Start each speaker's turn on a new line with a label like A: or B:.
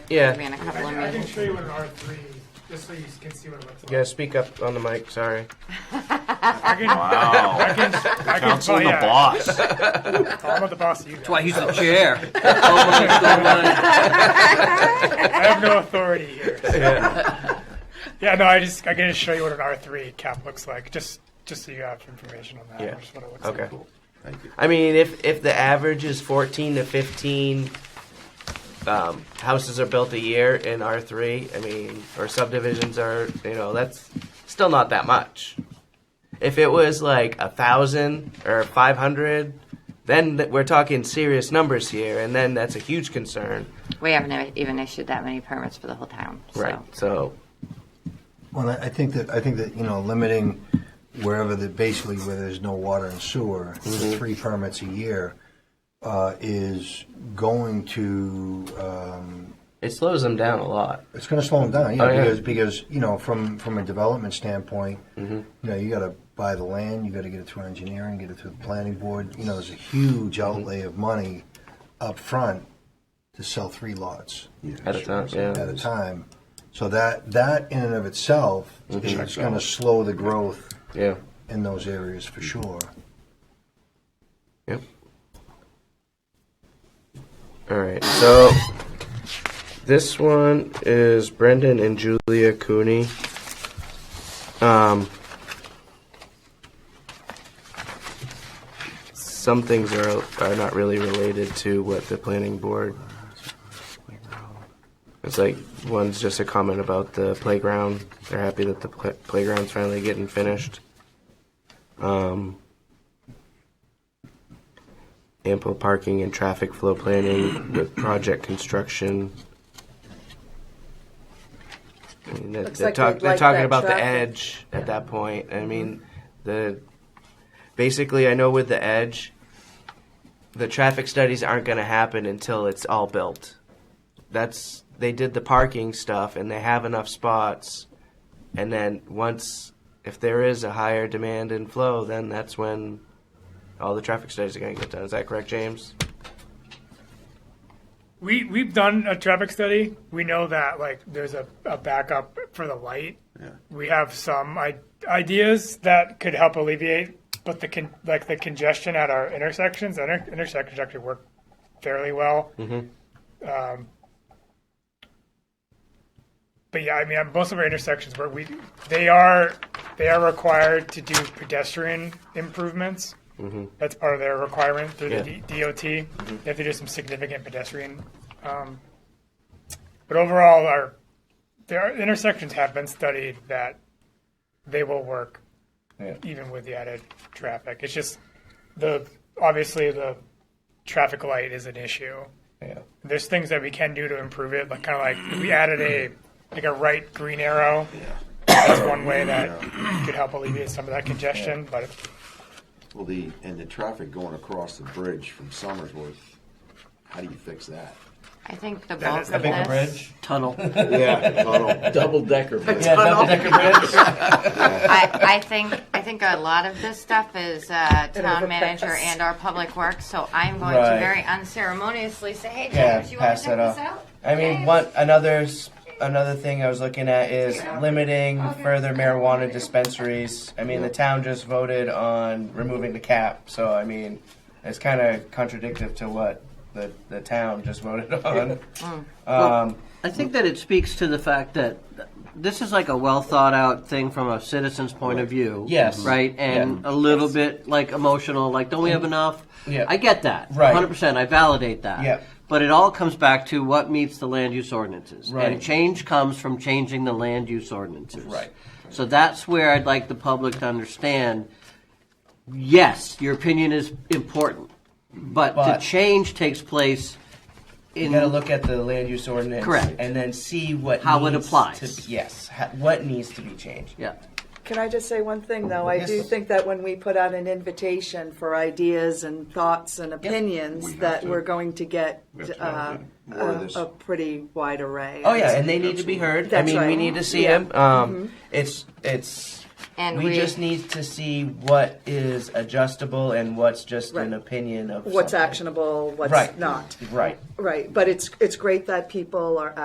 A: Yeah.
B: ran a couple of
C: I I can
B: meetings.
C: show you what an R three, just so you can see what it looks like.
A: You gotta speak up on the mic, sorry.
C: I can, I
D: Wow.
C: can, I can,
D: Council and the
C: yeah,
D: boss.
C: I'm not the boss of you guys.
E: Why he's the chair. Go mine, go mine.
C: I have no authority here.
A: Yeah.
C: Yeah, no, I just, I can just show you what an R three cap looks like, just, just so you have information on that.
A: Yeah.
C: just what it looks
A: Okay.
C: like.
D: Thank you.
A: I mean, if if the average is 14 to 15 um, houses are built a year in R3, I mean, or subdivisions are, you know, that's still not that much. If it was like a thousand or 500, then th- we're talking serious numbers here, and then that's a huge concern,
B: We haven't e-, even issued that many permits for the whole town,
A: right?
B: so.
A: So,
F: Well, I I think that, I think that, you know, limiting wherever the, basically where there's no water and sewer,
A: Mm-hmm.
F: to three permits a year, uh, is going to, um,
A: it slows them down a lot.
F: it's gonna slow them down, you
A: Oh,
F: know,
A: yeah.
F: because, because, you know, from, from a development standpoint,
A: Mm-hmm.
F: you know, you gotta buy the land, you gotta get it through engineering, get it through the planning board, you know, there's a huge
A: Mm-hmm.
F: outlay of money up front to sell three lots
A: At a time, yeah.
F: at a time. So that, that in and of itself is going to slow the growth
A: Yeah.
F: in those areas for sure.
A: Yep. All right. So this one is Brendan and Julia Cooney. Um, some things are are not really related to what the planning board. It's like one's just a comment about the playground. They're happy that the pl- playground's finally getting finished. Um, ample parking and traffic flow planning with project construction. I mean, they're,
G: Looks
A: they're
G: like
A: talk-
G: they'd
A: they're
G: like
A: talking
G: that
A: about the
G: traffic.
A: edge at that point. I mean, the basically, I know with the edge, the traffic studies aren't going to happen until it's all built. That's they did the parking stuff and they have enough spots, and then once if there is a higher demand and flow, then that's when all the traffic studies are going to get done. Is that correct, James?
C: We, we've done a traffic study. We know that like there's a, a backup for the light. We have some I- ideas that could help alleviate, but the con- like the congestion at our intersections, inter- intersections actually work fairly well. Um, but yeah, I mean, most of our intersections where we they are they are required to do pedestrian improvements. That's part of their requirement through the
A: Yeah.
C: D- DOT. They have to do some significant pedestrian. Um, but overall, our there are intersections have been studied that they will work even with the added traffic. It's just the obviously the traffic light is an issue.
A: Yeah.
C: There's things that we can do to improve it, like kind of like we added a like a right green arrow. That's one way that could help alleviate some of that congestion, but
H: Well, the, and the traffic going across the bridge from Somersworth, how do you fix that?
B: I think the
C: That
B: bulk
C: is
B: of
C: the big
B: this,
E: Tunnel.
H: Yeah. Tunnel.
D: Double decker. bridge.
B: I, I think, I think a lot of this stuff is uh, town manager
G: overpass.
B: and our public works, so I'm going to
A: Right.
B: very unceremoniously say, hey, James, you want to check this out?
A: I mean,
B: James?
A: one another s- another thing I was looking at is limiting further marijuana dispensaries. I mean, the town just voted on removing the cap, so I mean, it's kind of contradictive to what the the town just voted on. Um,
E: I think that it speaks to the fact that this is like a well thought out thing from a citizen's point of view.
A: Yes.
E: Right? And a little bit like emotional, like, don't we have enough?
A: Mm-hmm. Yeah.
E: I get that.
A: Right.
E: 100%. I validate that.
A: Yeah.
E: But it all comes back to what meets the land use ordinances.
A: Right.
E: And change comes from changing the land use ordinances.
A: Right.
E: So that's where I'd like the public to understand yes, your opinion is important, but,
A: But-
E: the change takes place in
A: you gotta look at the land use ordinance,
E: Correct.
A: and then see what
E: How it
A: needs
E: applies.
A: To, yes, ha- what needs to be changed.
E: Yeah.
G: Can I just say one thing, though? I do
A: Yes.
G: think that when we put out an invitation for ideas and thoughts and opinions,
H: We have
G: that
H: to-
G: we're going to get
H: we have to
G: uh,
H: have more of
G: a,
H: this.
G: a pretty wide array.
A: Oh yeah, and they need to be heard. I
G: That's
A: mean, we
G: right.
A: need to see
G: Yeah.
A: them. Um,
E: Mm-hmm.
A: It's it's.
B: And
A: we,
B: we-
A: just need to see what is adjustable and what's just an
G: Right.
A: opinion of
G: What's
A: something.
G: actionable? What's
A: Right.
G: not?
A: Right.
G: Right. But it's it's great that people are